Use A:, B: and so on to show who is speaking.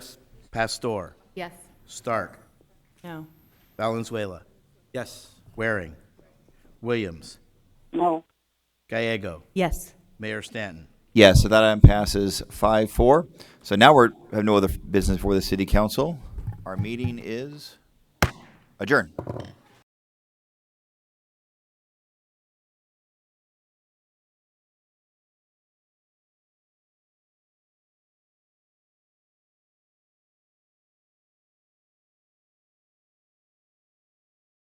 A: Pastor,
B: Yes.
A: Stark,
B: No.
A: Valenzuela,
C: Yes.
A: Waring, Williams,
D: no,
A: Gallego,
B: Yes.
A: Mayor Stanton.
E: Yeah, so that item passes five four. So now we're, have no other business for the city council. Our meeting is adjourned.